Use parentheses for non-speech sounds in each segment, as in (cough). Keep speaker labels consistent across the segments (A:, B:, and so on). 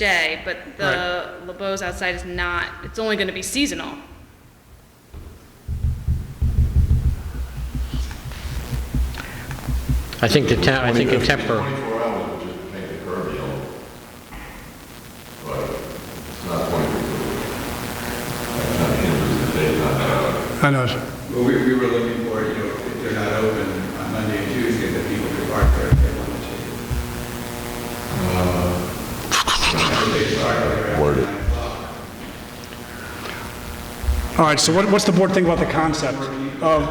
A: day, but the LeBeau's outside is not, it's only gonna be seasonal.
B: I think the town, I think a temper,
C: Twenty-four hours would just make the curb yellow. But it's not twenty-four. Not hinders the day, not hour.
D: I know, sir.
E: Well, we, we were looking for, you know, if they're not open on Monday and Tuesday, that people could park there if they wanted to. If they park there after
C: Word it.
E: nine o'clock.
D: All right, so what, what's the board think about the concept of,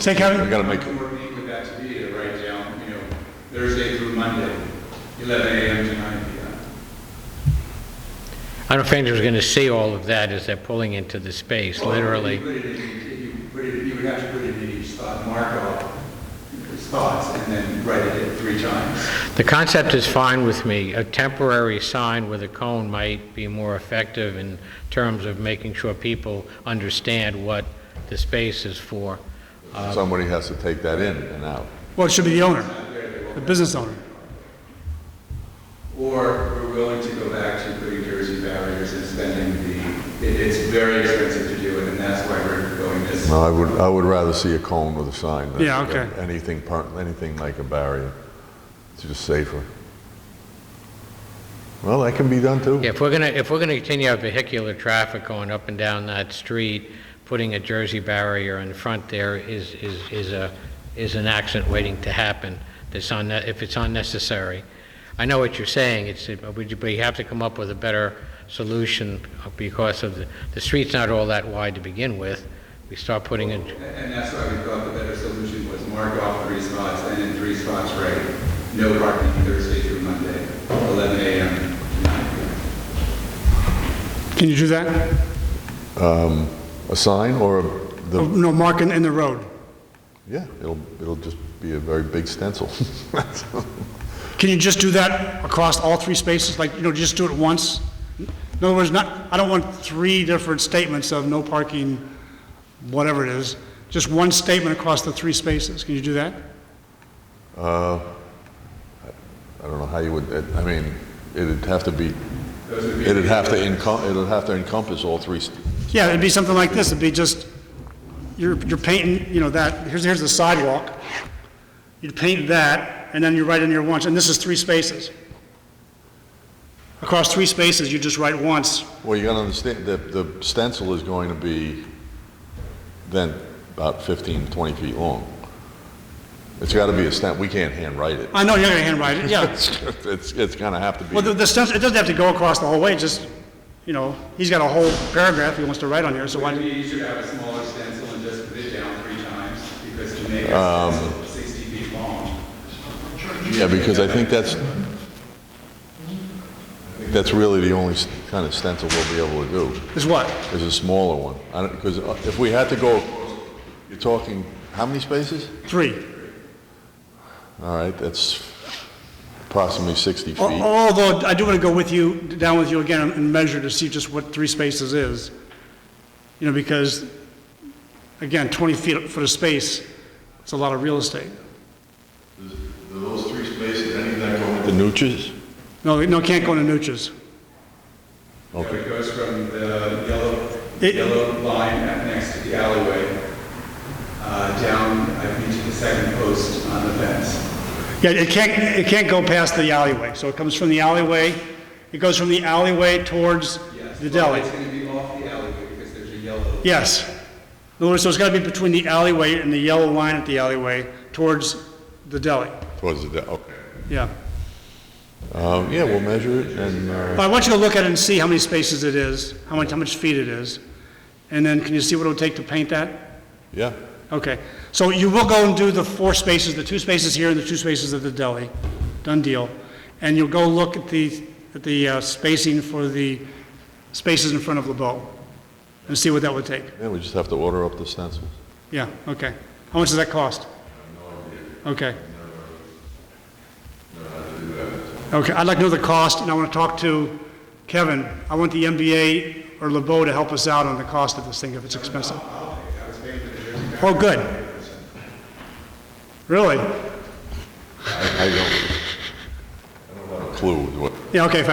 D: say,
C: I
D: Kevin?
C: gotta make,
E: We were meeting with that to be to write down, you know, Thursday through Monday, 11 a.m. to 9 p.m.
B: I don't think anyone's going to see all of that as they're pulling into the space, literally.
E: You put it in, you put it, you would have to put it in each spot, mark off his thoughts, and then write it in three times.
B: The concept is fine with me. A temporary sign with a cone might be more effective in terms of making sure people understand what the space is for.
C: somebody has to take that in and out.
D: Well, it should be the owner, the business owner.
E: Or we're willing to go back to putting Jersey barriers and spending the, it, it's very expensive to do it, and that's why we're going this.
C: No, I would, I would rather see a cone with a sign. than
D: Yeah, okay.
C: Anything, per- anything like a barrier. It's just safer. Well, that can be done too.
B: If we're going to, if we're going to continue our vehicular traffic going up and down that street, putting a Jersey barrier in front there is, is, is a, is an accident waiting to happen, that's on, if it's unnecessary. I know what you're saying, it's, but you- but you have to come up with a better solution because of the, the street's not all that wide to begin with. We start putting a,
E: And and that's why we thought the better solution was mark off three spots, and in three spots, right, no parking Thursday through Monday, 11 a.m. to 9 p.m.
D: Can you do that?
C: A sign or a-
D: Oh,
C: the,
D: No, mark in, in the road.
C: yeah, it'll, it'll just be a very big stencil. (laughs)
D: Can you just do that across all three spaces, like, you know, just do it once? In other words, not, I don't want three different statements of no parking, whatever it is, just one statement across the three spaces, can you do that?
C: I don't know how you would, I mean, it'd have to be,
E: Those would be.
C: it'd have to encom, it'd have to encompass all three, st-
D: Yeah, it'd be something like this, it'd be just, you're, you're painting, you know, that, here's, here's the sidewalk, you'd paint that, and then you write in your once, and this is three spaces. Across three spaces, you just write once,
C: Well, you gotta understand that the stencil is going to be then about 15, 20 feet long. It's gotta be a stent, we can't handwrite it. (laughs)
D: I know you're gonna handwrite it, yeah.
C: It's, it's- it's gonna have to
D: Well, the,
C: be,
D: the stencil, it doesn't have to go across the whole way, just, you know, he's got a whole paragraph he wants to write on here, so
E: Would it
D: why,
E: be easier to have a smaller stencil and just put it down three times, because to make a
D: Um,
E: stencil 60 feet long?
C: yeah, because I think that's, that's really the only s- kind of stencil we'll be able to do,
D: is what?
C: is a smaller one. I don't, because if we had to go, you're talking, how many spaces?
D: Three.
C: All right, that's approximately 60
D: Al-
C: feet.
D: Although, I do wanna go with you, down with you again and measure to see just what three spaces is. You know, because, again, twenty feet, foot of space, it's a lot of real estate.
C: Those three spaces, any of that go
D: oh.
C: with? The nooches?
D: No, no, it can't go into Nuches.
E: So It goes from the yellow,
D: It-
E: yellow line up next to the alleyway, uh, down, I think, to the second post on the fence.
D: Yeah, it can't, it can't go past the alleyway, so it comes from the alleyway, it goes from the alleyway towards
E: Yes,
D: the
E: but
D: deli.
E: It's going to be off the alleyway because there's a yellow.
D: Yes. In other words, so it's got to be between the alleyway and the yellow line at the alleyway towards the deli.
C: Towards the, de- okay.
D: Yeah.
C: Um, yeah, we'll measure it and, uh,
D: But I want you to look at it and see how many spaces it is, how much, how much feet it is. And then can you see what it would take to paint that?
C: yeah.
D: Okay. So you will go and do the four spaces, the two spaces here and the two spaces at the deli. Done deal. And you'll go look at the, at the uh, spacing for the spaces in front of LeBeau and see what that would take.
C: Yeah, we just have to order up the stencils.
D: Yeah, okay. How much does that cost? Okay. Okay, I'd like to know the cost, and I want to talk to Kevin. I want the MBA or LeBeau to help us out on the cost of this thing, if it's expensive. Oh, good. Really?
C: I I don't, I don't have a clue what
D: Yeah, okay, fine.